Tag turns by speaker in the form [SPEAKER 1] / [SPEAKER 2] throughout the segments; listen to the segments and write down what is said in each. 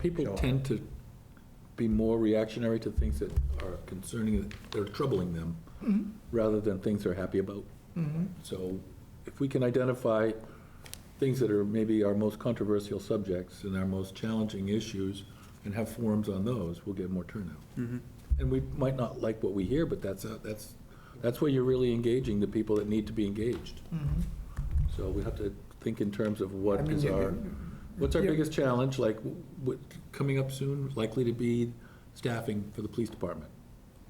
[SPEAKER 1] People tend to be more reactionary to things that are concerning, that are troubling them,
[SPEAKER 2] Mm-hmm.
[SPEAKER 1] rather than things they're happy about. So if we can identify things that are maybe our most controversial subjects and our most challenging issues, and have forums on those, we'll get more turnout. And we might not like what we hear, but that's, a- that's, that's where you're really engaging the people that need to be engaged.
[SPEAKER 2] 嗯
[SPEAKER 1] So we have to think in terms of
[SPEAKER 2] I
[SPEAKER 1] what
[SPEAKER 2] mean,
[SPEAKER 1] is
[SPEAKER 2] you
[SPEAKER 1] our, what's our
[SPEAKER 2] yeah.
[SPEAKER 1] biggest challenge, like, what, coming up soon, likely to be staffing for the police department?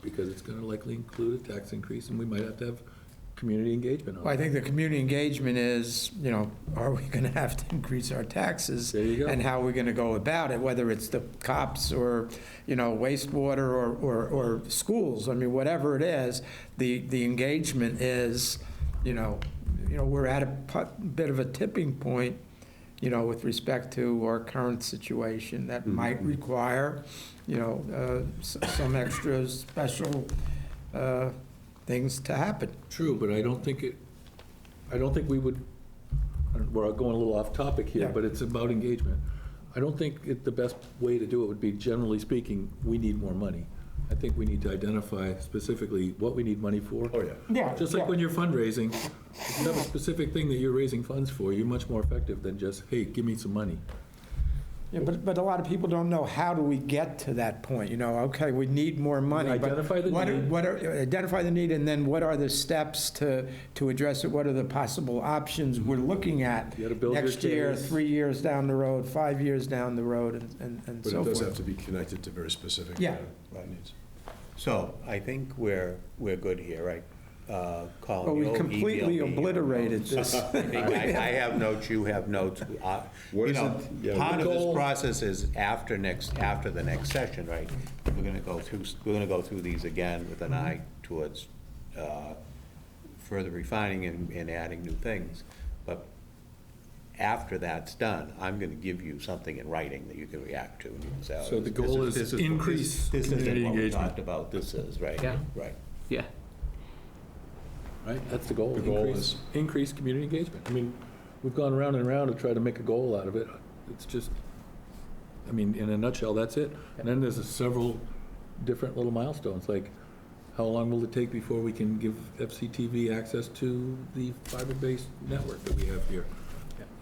[SPEAKER 1] Because it's gonna likely include a tax increase, and we might have to have community engagement
[SPEAKER 2] Well, I
[SPEAKER 1] on it.
[SPEAKER 2] think the community engagement is, you know, are we going to have to increase our taxes?
[SPEAKER 1] There you go.
[SPEAKER 2] And how are we going to go about it, whether it's the cops or, you know, wastewater or, or, or schools? I mean, whatever it is, the, the engagement is, you know, you know, we're at a pu- bit of a tipping point, you know, with respect to our current situation that
[SPEAKER 1] Mm-hmm.
[SPEAKER 2] might require, you know, uh, s- some extra special uh, things to happen.
[SPEAKER 1] True, but I don't think it, I don't think we would, I don't- we're going a little off topic here,
[SPEAKER 2] Yeah.
[SPEAKER 1] but it's about engagement. I don't think it, the best way to do it would be, generally speaking, we need more money. I think we need to identify specifically what we need money for. Oh, yeah.
[SPEAKER 2] Yeah,
[SPEAKER 1] Just like when you're fundraising, if you have a specific thing that you're raising funds for, you're much more effective than just, hey, give me some money.
[SPEAKER 2] Yeah, but, but a lot of people don't know, how do we get to that point? You know, okay, we need more money. but
[SPEAKER 1] Identify the
[SPEAKER 2] what are-
[SPEAKER 1] need.
[SPEAKER 2] What are, identify the need, and then what are the steps to, to address it? What are the possible options we're looking at?
[SPEAKER 1] You gotta build your
[SPEAKER 2] Next year,
[SPEAKER 1] case.
[SPEAKER 2] three years down the road, five years down the road, and- and, and
[SPEAKER 3] But
[SPEAKER 2] so
[SPEAKER 3] it does have
[SPEAKER 2] forth.
[SPEAKER 3] to be connected to very specific.
[SPEAKER 2] Yeah.
[SPEAKER 3] uh, uh, needs.
[SPEAKER 4] So I think we're, we're good here, right? Uh, Colin,
[SPEAKER 2] Well, we
[SPEAKER 4] you'll email
[SPEAKER 2] completely
[SPEAKER 4] me your
[SPEAKER 2] obliterated
[SPEAKER 4] notes.
[SPEAKER 2] this.
[SPEAKER 4] I think I I have notes, you have notes. uh,
[SPEAKER 3] What
[SPEAKER 4] You
[SPEAKER 3] is
[SPEAKER 4] know,
[SPEAKER 3] it- yeah.
[SPEAKER 4] part of this
[SPEAKER 1] Goal.
[SPEAKER 4] process is after next, after the next session, right? We're gonna go through, we're gonna go through these again with an eye
[SPEAKER 2] Mm-hmm.
[SPEAKER 4] towards uh, further refining and, and adding new things. But after that's done, I'm gonna give you something in writing that you can react to and you can say. oh,
[SPEAKER 1] So the
[SPEAKER 4] this- this
[SPEAKER 1] goal is
[SPEAKER 4] this this-
[SPEAKER 1] increase
[SPEAKER 4] This isn't
[SPEAKER 1] community
[SPEAKER 4] what we
[SPEAKER 1] engagement.
[SPEAKER 4] talked about, this is, right?
[SPEAKER 5] Yeah.
[SPEAKER 4] Right.
[SPEAKER 5] Yeah.
[SPEAKER 1] Right, that's the goal.
[SPEAKER 3] The goal
[SPEAKER 1] Increase-
[SPEAKER 3] is-
[SPEAKER 1] Increase community engagement. I mean, we've gone round and round to try to make a goal out of it. It's just, I mean, in a nutshell, that's it. And then there's several different little milestones, like how long will it take before we can give FCTV access to the fiber-based network that we have here?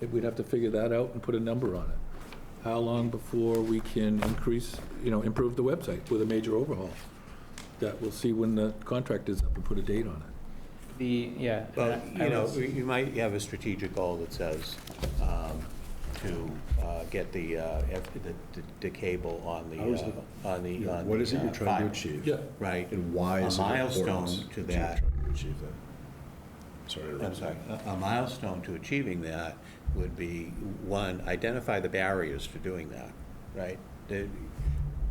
[SPEAKER 1] If We'd have to figure that out and put a number on it. How long before we can increase, you know, improve the website with a major overhaul? That we'll see when the contract is up and put a date on it.
[SPEAKER 5] The, yeah.
[SPEAKER 4] Well,
[SPEAKER 5] I- I
[SPEAKER 4] you know,
[SPEAKER 5] was-
[SPEAKER 4] we- you might have a strategic goal that says um, to uh, get the, uh, F- the- the- the cable on
[SPEAKER 3] How is it-
[SPEAKER 4] the, uh, on the. on
[SPEAKER 3] What
[SPEAKER 4] the,
[SPEAKER 3] is it you're trying
[SPEAKER 4] uh,
[SPEAKER 3] to
[SPEAKER 4] fiber,
[SPEAKER 3] achieve?
[SPEAKER 1] Yeah.
[SPEAKER 4] Right.
[SPEAKER 3] And why
[SPEAKER 4] A
[SPEAKER 3] is it
[SPEAKER 4] milestone
[SPEAKER 3] important
[SPEAKER 4] to
[SPEAKER 3] you're
[SPEAKER 4] that.
[SPEAKER 3] trying to achieve that? Sorry to
[SPEAKER 4] I'm
[SPEAKER 3] interrupt.
[SPEAKER 4] sorry, a- a milestone to achieving that would be, one, identify the barriers to doing that, right? The-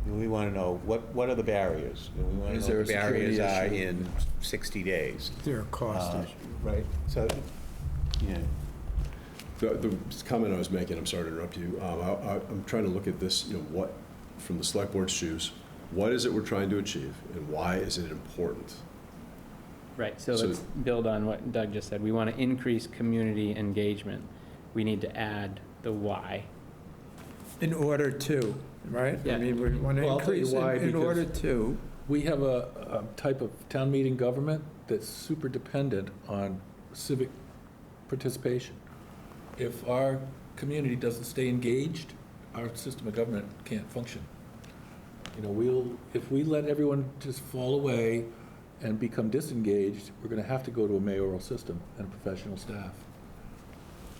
[SPEAKER 4] We want to know, what, what are the barriers? We want to
[SPEAKER 1] Is
[SPEAKER 4] know
[SPEAKER 1] there
[SPEAKER 4] what
[SPEAKER 1] a
[SPEAKER 4] the barriers are
[SPEAKER 1] security issue?
[SPEAKER 4] in 60 days.
[SPEAKER 2] There are cost
[SPEAKER 4] Uh,
[SPEAKER 2] issues.
[SPEAKER 4] Right, so, yeah,
[SPEAKER 3] The, the comment I was making, I'm sorry to interrupt you, um, I, I- I'm trying to look at this, you know, what, from the select board's shoes, what is it we're trying to achieve and why is it important?
[SPEAKER 5] Right, so
[SPEAKER 3] so-
[SPEAKER 5] let's build on what Doug just said. We want to increase community engagement. We need to add the why.
[SPEAKER 2] In order to, right? I
[SPEAKER 5] Yeah.
[SPEAKER 2] mean, we want to
[SPEAKER 1] Well, I'll tell you
[SPEAKER 2] increase in
[SPEAKER 1] why,
[SPEAKER 2] in
[SPEAKER 1] because-
[SPEAKER 2] order to,
[SPEAKER 1] We have a, a type of town meeting government that's super dependent on civic participation. If our community doesn't stay engaged, our system of government can't function. You know, we'll, if we let everyone just fall away and become disengaged, we're gonna have to go to a mayoral system and professional staff.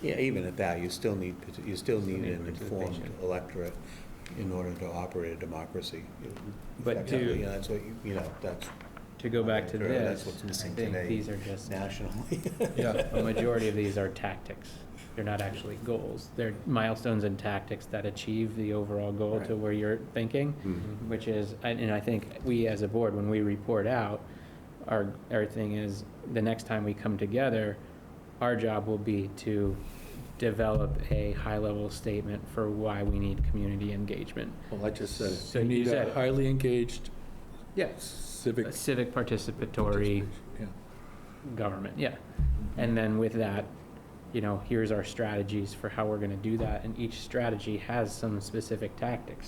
[SPEAKER 4] yeah, even at that, you still need, you still need an informed
[SPEAKER 5] participation.
[SPEAKER 4] electorate in order to operate a democracy.
[SPEAKER 5] But to-
[SPEAKER 4] Effectively, and That's what, you you know, that's
[SPEAKER 5] To go back to
[SPEAKER 4] Sure, that's
[SPEAKER 5] this,
[SPEAKER 4] what's
[SPEAKER 5] I
[SPEAKER 4] missing
[SPEAKER 5] think
[SPEAKER 4] today.
[SPEAKER 5] these are just,
[SPEAKER 4] nationally.
[SPEAKER 1] Yeah.
[SPEAKER 5] the majority of these are tactics. They're not actually goals. They're milestones and tactics that achieve the overall goal to where you're thinking,
[SPEAKER 1] Mm-hmm.
[SPEAKER 5] which is, and and I think we as a board, when we report out, our, our thing is, the next time we come together, our job will be to develop a high-level statement for why we need community engagement.
[SPEAKER 1] Well, I just said it.
[SPEAKER 5] So
[SPEAKER 1] You
[SPEAKER 5] you
[SPEAKER 1] need
[SPEAKER 5] said
[SPEAKER 1] a
[SPEAKER 5] it.
[SPEAKER 1] highly engaged
[SPEAKER 5] Yes.
[SPEAKER 1] civic.
[SPEAKER 5] Civic participatory
[SPEAKER 1] participation. Yeah.
[SPEAKER 5] government, yeah. And then with that, you know, here's our strategies for how we're gonna do that, and each strategy has some specific tactics.